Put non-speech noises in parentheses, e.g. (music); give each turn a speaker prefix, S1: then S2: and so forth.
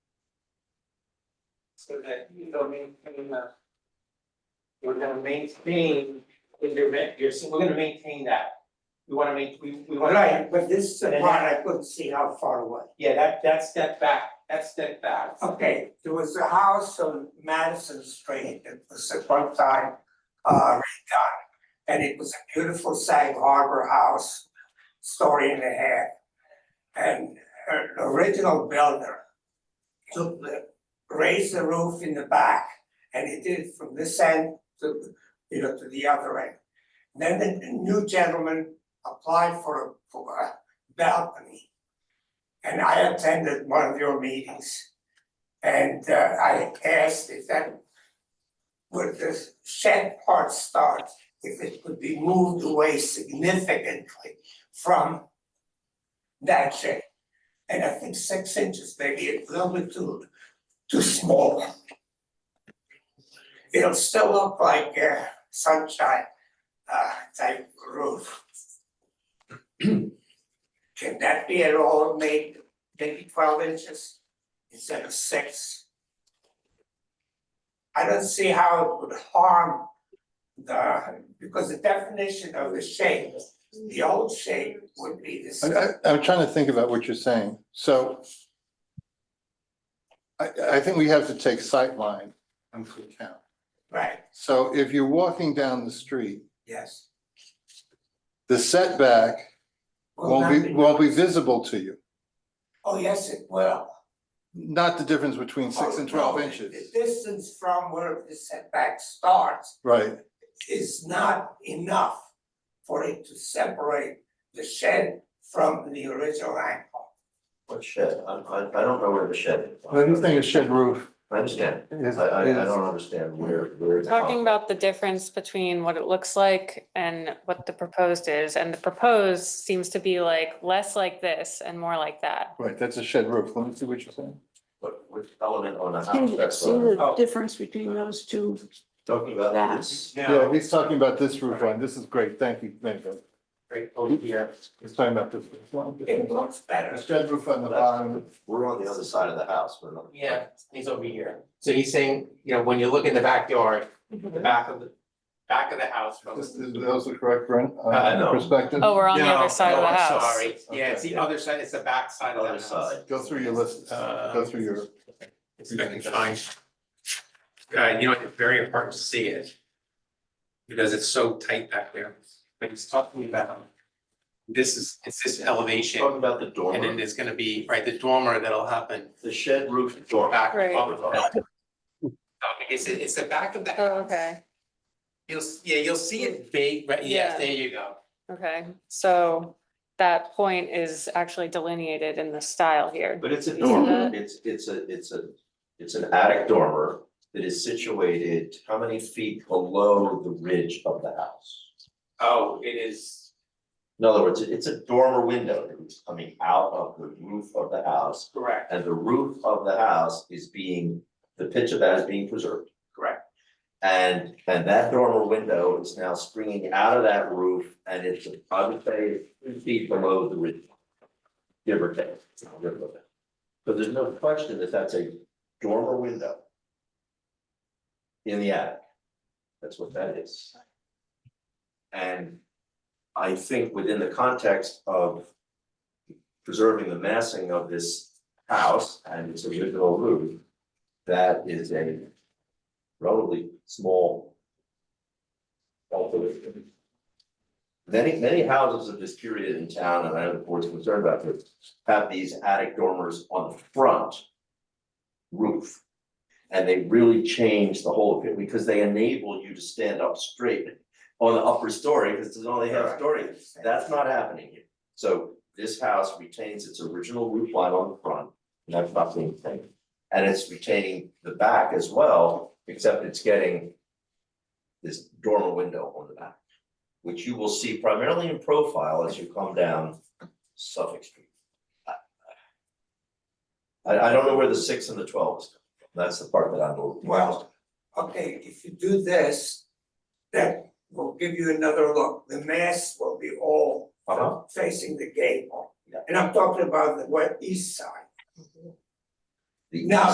S1: so that you don't maintain a. We're gonna maintain intermittent, you're, so we're gonna maintain that. We wanna make, we we wanna.
S2: Right, but this is a
S1: And-
S2: part I couldn't see how far away.
S1: Yeah, that that step back, that step back.
S2: Okay, there was a house on Madison Street that was at one time uh redone. And it was a beautiful Sag Harbor house, story and a half. And uh, the original builder took the, raised the roof in the back and he did it from this end to, you know, to the other end. Then the new gentleman applied for a, for a balcony. And I attended one of your meetings. And uh, I asked if that would the shed part start, if it could be moved away significantly from that shed. And I think six inches, maybe a little bit too, too small. It'll still look like a sunshine uh, type roof. (clears throat) Can that be at all made maybe twelve inches? instead of six. I don't see how it would harm the, because the definition of the shape, the old shape would be the
S3: I,
S2: same.
S3: I, I'm trying to think about what you're saying, so. I, I think we have to take sightline into account.
S2: Right,
S3: So if you're walking down the street,
S2: yes.
S3: the setback
S2: Will
S3: won't
S2: not
S3: be, won't be visible to you.
S2: Oh, yes, it will.
S3: Not the difference between six and
S2: Oh,
S3: twelve
S2: no,
S3: inches,
S2: The distance from where the setback starts
S3: right?
S2: is not enough for it to separate the shed from the original angle.
S4: What shed? I, I, I don't know where the shed is.
S3: But this thing is shed roof.
S4: I understand. I,
S3: is-
S4: I, I
S3: is-
S4: don't understand where, where.
S5: We're
S4: it's
S5: Talking
S4: from.
S5: about the difference between what it looks like and what the proposed is, and the proposed seems to be like less like this and more like that.
S3: Right, that's a shed roof, let me see what you're saying.
S4: What, which element on a
S6: Can
S4: house,
S6: you
S4: that's
S6: see
S4: what I'm
S6: the difference between those two?
S4: talking about.
S6: That.
S4: This-
S3: Yeah, he's talking about this roof line, this is great, thank you, thank you.
S1: Right over here.
S3: He's talking about this. roof
S2: It
S3: line.
S2: looks better.
S3: The shed roof on the bottom,
S4: We're on the other side of the house, we're not.
S1: Yeah, he's over here. So he's saying, you know, when you look in the backyard, the back of the, back of the house from.
S3: this is, those are correct, Brent,
S1: Uh,
S3: uh,
S4: no.
S3: perspective?
S5: Oh, we're on the
S1: No,
S5: other side
S1: no,
S5: of the
S1: I'm
S5: house.
S1: Sorry, yeah, it's the other side, it's the back side of the
S4: Other
S1: house.
S4: side.
S3: Go through your list,
S1: Uh,
S3: go through your,
S1: It's fucking fine. Uh, you know, it's very hard to see it. Because it's so tight back there, but he's talking about. This is, it's this elevation,
S4: Talking about Oh, the
S1: and then
S4: dormer,
S1: there's gonna be, right, the dormer that'll happen
S4: the shed roof dormer.
S1: back
S5: Right.
S1: up. It's, it's the back of the
S5: Oh,
S1: house,
S5: okay,
S1: you'll, yeah, you'll see it big, right, yes,
S5: Yeah.
S1: there you go.
S5: okay, so that point is actually delineated in the style here.
S4: But it's a
S5: You see
S4: dormer,
S5: that?
S4: it's, it's a, it's a, it's an attic dormer that is situated how many feet below the ridge of the house?
S1: Oh, it is,
S4: In other words, it's a dormer window that's coming out of the roof of the house.
S1: correct,
S4: And the roof of the house is being, the pitch of that is being preserved.
S1: correct,
S4: And, and that dormer window is now springing out of that roof and it's, I would say, three feet below the ridge. Give or take. give or take. So there's no question that that's a dormer window. In the attic. That's what that is. And I think within the context of preserving the massing of this house and its original roof, that is a relatively small alteration. Many, many houses of this period in town, and I know the board's concerned about this, have these attic dormers on the front roof. And they really change the whole, appear- because they enable you to stand up straight on the upper story, because there's only half story that's not happening here. So this house retains its original roof line on the front, and that's not being taken. And it's retaining the back as well, except it's getting this dormer window on the back, which you will see primarily in profile as you come down Suffolk Street. I, I don't know where the six and the twelve is. That's the part that I'm. a little-
S2: Well, okay, if you do this, that will give you another look. The mass will be all
S4: Uh-huh.
S2: facing the gable.
S4: Yeah.
S2: And I'm talking about the west, east side.
S4: The
S2: Now,